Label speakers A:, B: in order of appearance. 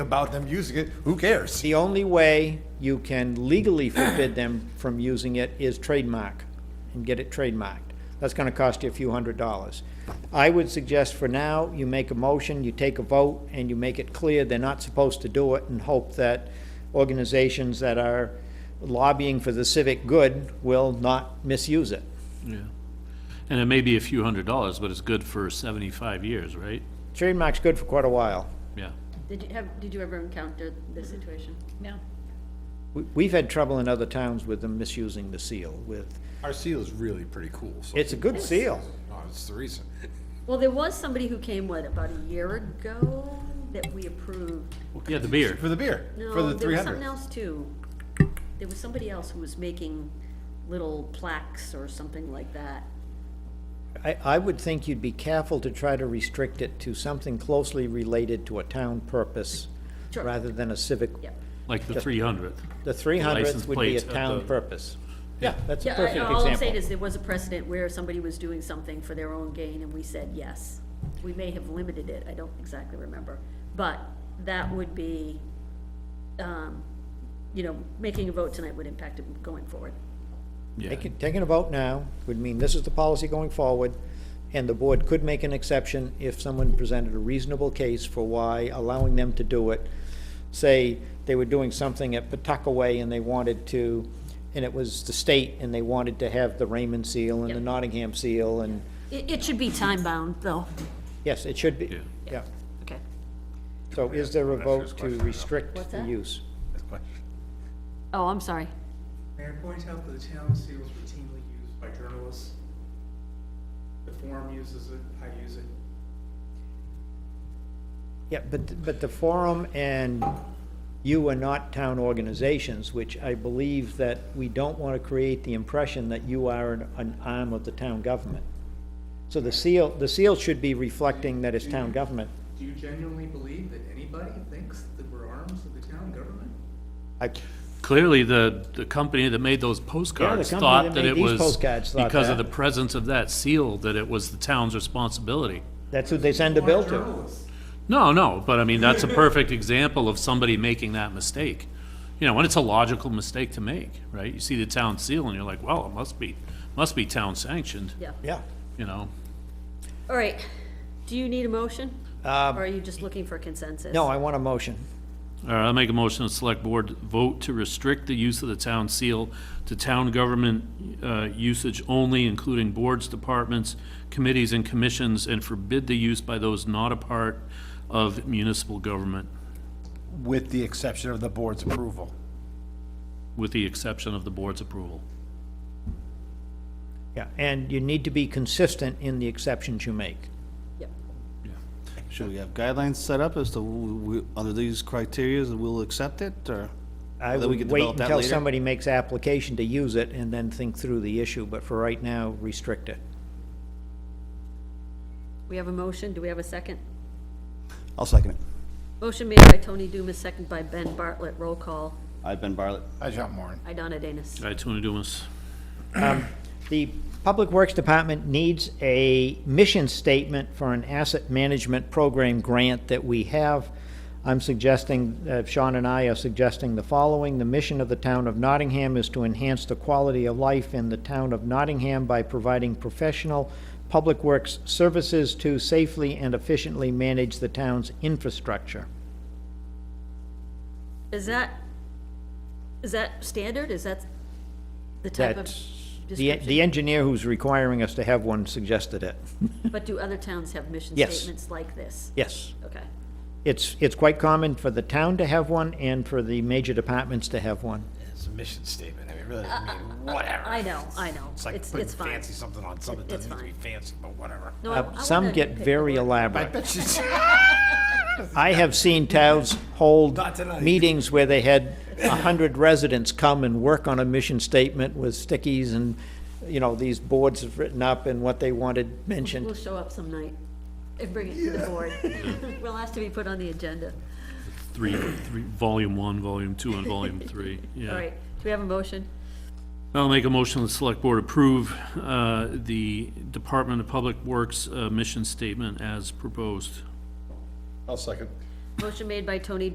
A: about them using it, who cares?
B: The only way you can legally forbid them from using it is trademark and get it trademarked. That's gonna cost you a few hundred dollars. I would suggest for now, you make a motion, you take a vote, and you make it clear they're not supposed to do it and hope that organizations that are lobbying for the civic good will not misuse it.
C: Yeah. And it may be a few hundred dollars, but it's good for seventy-five years, right?
B: Trademark's good for quite a while.
C: Yeah.
D: Did you have, did you ever encounter this situation?
E: No.
B: We- We've had trouble in other towns with them misusing the seal with,
A: Our seal is really pretty cool, so.
B: it's a good seal.
A: No, it's the reason.
D: Well, there was somebody who came, what, about a year ago that we approved?
C: Yeah, the beer.
A: For the beer, for
D: No,
A: the
D: there
A: three
D: was something
A: hundred.
D: else too. There was somebody else who was making little plaques or something like that.
B: I, I would think you'd be careful to try to restrict it to something closely related to a town purpose
D: Sure.
B: rather than a civic.
D: Yep.
C: Like the three hundredth.
B: The three
C: License
B: hundredth would be a
C: plates at
B: town
C: the-
B: purpose. Yeah, that's a
D: Yeah, I-
B: perfect
D: all I'm saying
B: example.
D: is there was a precedent where somebody was doing something for their own gain and we said yes. We may have limited it, I don't exactly remember, but that would be, um, you know, making a vote tonight would impact it going forward.
C: Yeah.
B: Taking, taking a vote now would mean this is the policy going forward, and the board could make an exception if someone presented a reasonable case for why allowing them to do it. Say, they were doing something at Pawtuckaway and they wanted to, and it was the state, and they wanted to have the Raymond seal and the
D: Yep.
B: Nottingham seal, and,
D: It, it should be time-bound, though.
B: yes, it should be,
C: Yeah.
B: yeah.
D: Okay.
B: So is there a vote to restrict
D: What's
B: the
D: that?
B: use?
D: Oh, I'm sorry.
F: Mayor points out that the town seal is routinely used by journalists. The forum uses it, I use it.
B: Yeah, but, but the forum and you are not town organizations, which I believe that we don't want to create the impression that you are an, an arm of the town government. So the seal, the seal should be reflecting that it's town government.
F: Do you genuinely believe that anybody thinks that we're arms of the town government?
B: I,
C: Clearly, the, the company that made those
B: company
C: postcards
B: that
C: thought that
B: made
C: it
B: these
C: was.
B: postcards thought
C: Because of
B: that.
C: the presence of that seal, that it was the town's responsibility.
B: that's who they send the bill to.
F: Journalists.
C: No, no, but I mean, that's a perfect example of somebody making that mistake. You know, and it's a logical mistake to make, right? You see the town seal and you're like, well, it must be, must be town sanctioned,
D: Yeah.
B: Yeah.
C: you know?
D: All right. Do you need a motion?
B: Um,
D: Or are you just looking for consensus?
B: No, I want a motion.
C: All right, I'll make a motion, the select board vote to restrict the use of the town seal to town government, uh, usage only, including boards, departments, committees, and commissions, and forbid the use by those not a part of municipal government,
A: With the exception of the board's approval.
C: with the exception of the board's approval.
B: Yeah, and you need to be consistent in the exceptions you make.
D: Yep.
G: Should we have guidelines set up as to, who we- under these criterias, we'll accept it, or?
B: I
G: Then
B: would
G: we could
B: wait
G: develop that
B: until
G: later.
B: somebody makes application to use it and then think through the issue, but for right now, restrict it.
D: We have a motion. Do we have a second?
G: I'll second it.
D: Motion made by Tony Dumas, second by Ben Bartlett. Roll call.
G: I've been Bartlett.
A: I jump Warren.
D: Idonna Danis.
C: All right, Tony Dumas.
B: The Public Works Department needs a mission statement for an asset management program grant that we have. I'm suggesting, uh, Sean and I are suggesting the following. The mission of the town of Nottingham is to enhance the quality of life in the town of Nottingham by providing professional public works services to safely and efficiently manage the town's infrastructure.
D: Is that, is that standard? Is that the type of
B: That's, the,
D: description?
B: the engineer who's requiring us to have one suggested it.
D: But do other towns have mission
B: Yes.
D: statements like this?
B: Yes.
D: Okay.
B: It's, it's quite common for the town to have one and for the major departments to have one.
A: It's a mission statement, I mean, really, I mean, whatever.
D: I know, I know.
A: It's like
D: It's,
A: putting
D: it's fine.
A: fancy something on something, that
D: It's
A: doesn't need to be fancy, but whatever.
D: No, I-
B: Uh,
D: I
B: Some
D: wanna
B: get
D: pick the
B: very
D: word.
A: I
B: elaborate.
A: bet you,
B: I have seen towns hold
A: Not tonight.
B: meetings where they had a hundred residents come and work on a mission statement with stickies and, you know, these boards have written up and what they wanted
D: We'll
B: mentioned.
D: show up some night and bring it to the board. We'll ask to be put on the agenda.
C: Three, three, volume one, volume two, and volume three, yeah.
D: All right, do we have a motion?
C: I'll make a motion, the select board approve, uh, the Department of Public Works, uh, mission statement as proposed.
A: I'll second.
D: Motion made by Tony